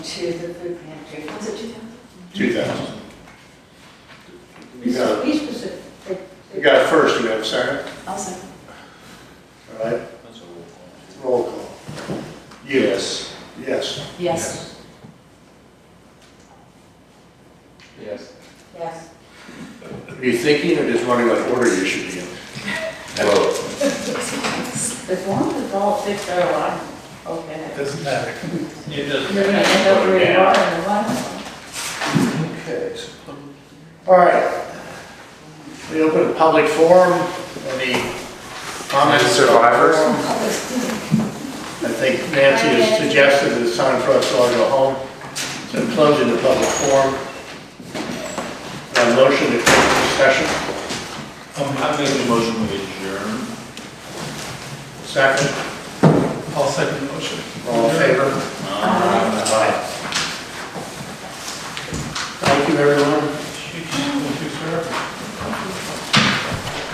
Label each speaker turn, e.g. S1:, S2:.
S1: to the food pantry. Was it two thousand?
S2: Two thousand. We got,
S1: We supposed to, like,
S2: we got a first, do we have a second?
S1: I'll second.
S2: All right, roll call. Yes. Yes.
S1: Yes.
S3: Yes.
S1: Yes.
S2: Are you thinking or just wondering what order you should be in? Well,
S1: As long as it's all fixed, oh, I'm okay.
S4: Doesn't matter.
S3: It
S1: You're gonna end up where you are in the one.
S2: Okay. so- All right. We open a public forum. Any comments?
S4: Survivors?
S2: I think Nancy has suggested it's time for us all to go home. So closing the public forum. Uh, A motion to close the session.
S3: Um, I make a motion we adjourn.
S2: Second,
S4: I'll second the motion.
S2: all in favor? Aye. Thank you, everyone.